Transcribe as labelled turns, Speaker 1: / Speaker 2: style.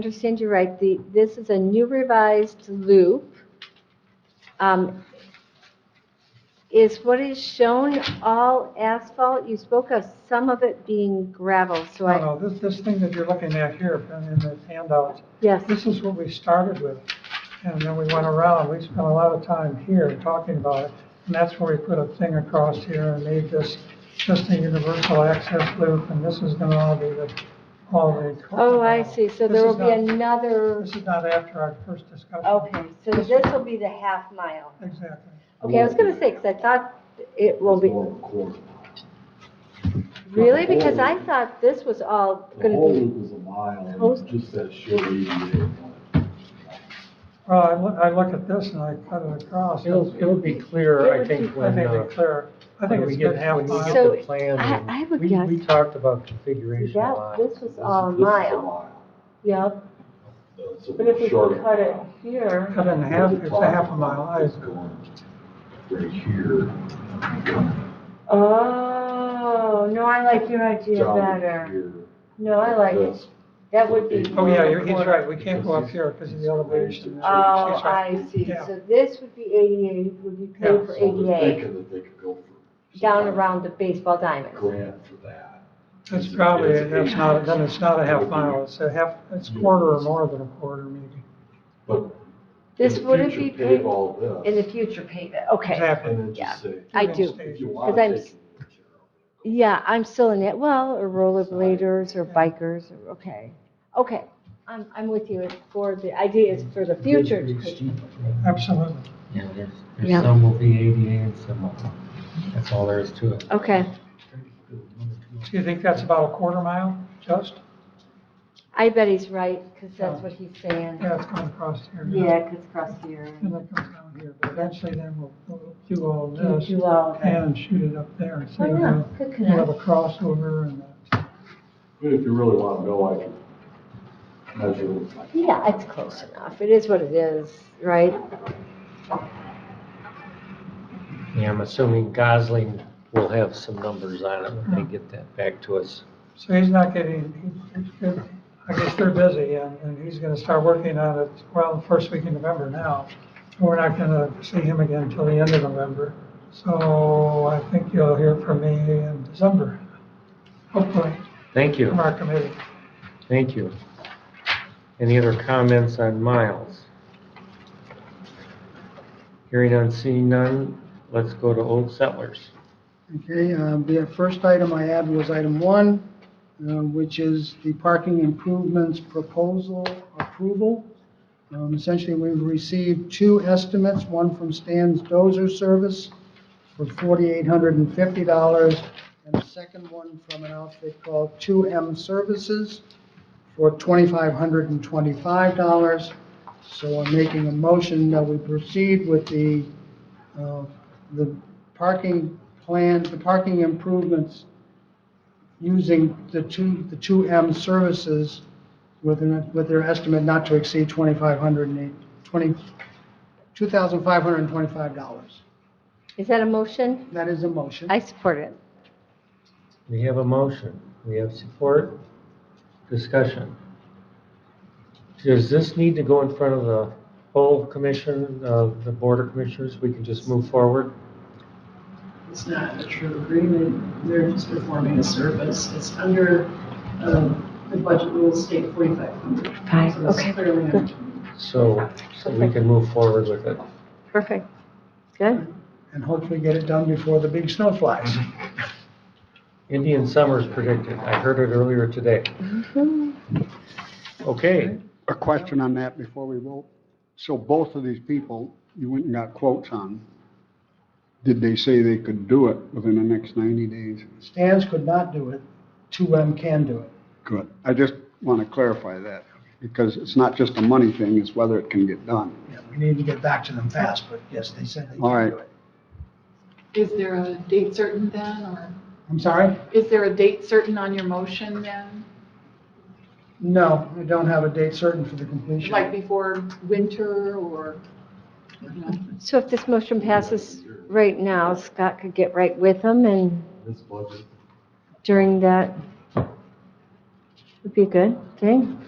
Speaker 1: understand you right, the, this is a new revised loop. Um, Is what is shown all asphalt? You spoke of some of it being gravel, so I,
Speaker 2: No, no, this, this thing that you're looking at here in the handout,
Speaker 1: yes,
Speaker 2: this is what we started with. And then we went around, we spent a lot of time here talking about it. And that's where we put a thing across here and made this just a universal access loop. And this is going to all be the, all the.
Speaker 1: oh, I see, so
Speaker 2: This
Speaker 1: there will
Speaker 2: is
Speaker 1: be
Speaker 2: not-
Speaker 1: another,
Speaker 2: This is not after our first discussion.
Speaker 1: okay, so this will be the half mile.
Speaker 2: Exactly.
Speaker 1: Okay, I was gonna say, because I thought it will be,
Speaker 3: Or quarter.
Speaker 1: really? Because I thought this was all
Speaker 3: The
Speaker 1: gonna
Speaker 3: whole
Speaker 1: be,
Speaker 3: loop is a mile,
Speaker 1: Post-
Speaker 3: and just that short ADA.
Speaker 2: Well, I look, I look at this and I cut it across.
Speaker 4: It'll, it'll be
Speaker 1: It
Speaker 4: clear,
Speaker 1: would
Speaker 4: I
Speaker 1: be
Speaker 4: think,
Speaker 2: I
Speaker 4: when,
Speaker 2: think
Speaker 4: uh,
Speaker 2: we clear, I think
Speaker 4: when we
Speaker 2: it's been
Speaker 4: get,
Speaker 2: half
Speaker 4: when you
Speaker 2: mile.
Speaker 4: get
Speaker 1: So,
Speaker 4: the plan.
Speaker 1: I-
Speaker 4: and
Speaker 1: I would
Speaker 4: we-
Speaker 1: guess-
Speaker 4: We talked about configuration a
Speaker 1: that,
Speaker 4: lot.
Speaker 1: this was
Speaker 3: This is-
Speaker 1: all
Speaker 3: this is
Speaker 1: mile, yeah.
Speaker 3: It's a
Speaker 5: But if we
Speaker 3: shorter
Speaker 5: cut it
Speaker 3: mile.
Speaker 5: here,
Speaker 2: Cut it in half, it's a half a mile. I-
Speaker 3: It's going Right here.
Speaker 5: oh, no, I like your idea
Speaker 3: down
Speaker 5: better.
Speaker 3: here,
Speaker 5: No, I like it.
Speaker 3: this.
Speaker 5: That would be.
Speaker 2: Oh, yeah, you're, he's
Speaker 5: more-
Speaker 2: right, we can't go up here because of the elevation.
Speaker 5: Oh, I
Speaker 2: She's right.
Speaker 5: see.
Speaker 2: Yeah.
Speaker 1: So this would be ADA, would be paid
Speaker 2: Yeah,
Speaker 3: So
Speaker 1: for
Speaker 3: they're
Speaker 1: ADA,
Speaker 3: thinking that they could go for.
Speaker 1: down around the baseball diamond.
Speaker 3: Grant for that.
Speaker 2: That's probably,
Speaker 3: It's-
Speaker 2: that's not, then it's not a half mile, it's a half, it's quarter or more than a quarter maybe.
Speaker 3: But in
Speaker 1: This
Speaker 3: the
Speaker 1: wouldn't
Speaker 3: future,
Speaker 1: be
Speaker 3: pave
Speaker 1: paid
Speaker 3: all
Speaker 1: in the
Speaker 3: this,
Speaker 1: future paid, okay.
Speaker 3: and
Speaker 2: Exactly.
Speaker 3: then just say,
Speaker 1: I
Speaker 2: Two-inch
Speaker 1: do.
Speaker 3: if
Speaker 2: stages.
Speaker 3: you
Speaker 1: Because I'm
Speaker 3: want to
Speaker 1: s-
Speaker 3: take. it,
Speaker 1: Yeah, I'm still in it, well, or rollerbladers or bikers, or- okay. Okay, I'm, I'm with you, it's for, the idea is for the future. to pay.
Speaker 2: Absolutely.
Speaker 4: Yeah, there's,
Speaker 1: Yeah.
Speaker 4: there's some will be ADA and some won't. That's all there is to it.
Speaker 1: Okay,
Speaker 2: So you think that's about a quarter mile, just?
Speaker 1: I bet he's right, because that's what he's saying.
Speaker 2: Yeah, Mm-hmm. it's going across here.
Speaker 1: Yeah, because across here.
Speaker 2: And it comes down here, but eventually then we'll, we'll do all
Speaker 1: You
Speaker 2: this
Speaker 1: do all of that.
Speaker 2: and shoot it up there. So
Speaker 1: Oh, yeah,
Speaker 2: we'll-
Speaker 1: good
Speaker 2: we'll have
Speaker 1: connect.
Speaker 2: a crossover and, uh,
Speaker 3: But if you really want to know, I can measure it like
Speaker 1: Yeah, it's close enough, it is what it is, right?
Speaker 4: Yeah, I'm assuming Gosling will have some numbers on it when they get that back to us.
Speaker 2: so he's not getting, he's- he's- I guess they're busy and, and he's going to start working on it, well, first week in November now. We're not going to see him again until the end of November. So I think you'll hear from me in December, hopefully,
Speaker 4: Thank you,
Speaker 2: from our committee.
Speaker 4: thank you. Any other comments on Miles? Hearing none, seeing none, let's go to Old Settlers.
Speaker 6: Okay, um, the first item I had was item one, uh, which is the parking improvements proposal approval. Um, Essentially, we've received two estimates, one from Stan's Dozer Service for $4,850, and the second one from an outfit called 2M Services for $2,525. So I'm making a motion that we proceed with the uh, the parking plan, the parking improvements using the two, the two M services with their, with their estimate not to exceed twenty-five hundred and eight, twenty, two thousand five hundred and twenty-five dollars.
Speaker 1: Is that a motion?
Speaker 6: That is a motion.
Speaker 1: I support it.
Speaker 4: We have a motion, we have support, discussion. Does this need to go in front of the whole commission, uh, the board of commissioners? We can just move forward?
Speaker 7: It's not a true agreement, they're just performing a service. It's under um, the budget rules, state 4500.
Speaker 1: Five,
Speaker 7: So it's
Speaker 1: okay,
Speaker 7: clearly under
Speaker 1: good.
Speaker 4: So, so we can move forward with it.
Speaker 1: Perfect. Good.
Speaker 6: And hopefully get it done before the big snow flies.
Speaker 8: Mm-hmm.
Speaker 4: Indian summer's predicted, I heard it earlier today. Okay,
Speaker 8: A question on that before we vote. So both of these people, you went and got quotes on, did they say they could do it within the next 90 days?
Speaker 6: Stan's could not do it, two M can do it.
Speaker 8: Good. I just want to clarify that, because it's not just a money thing, it's whether it can get done.
Speaker 6: Yeah, We need to get back to them fast, but yes, they said they
Speaker 8: All
Speaker 6: can
Speaker 8: right.
Speaker 6: do it.
Speaker 9: Is there a date certain then, or
Speaker 6: I'm sorry?
Speaker 9: is there a date certain on your motion then?
Speaker 6: No, I don't have a date certain for the completion.
Speaker 9: Like before winter or, you know?
Speaker 1: So if this motion passes right now, Scott could get right with him and
Speaker 3: this budget.
Speaker 1: during that would be a good thing.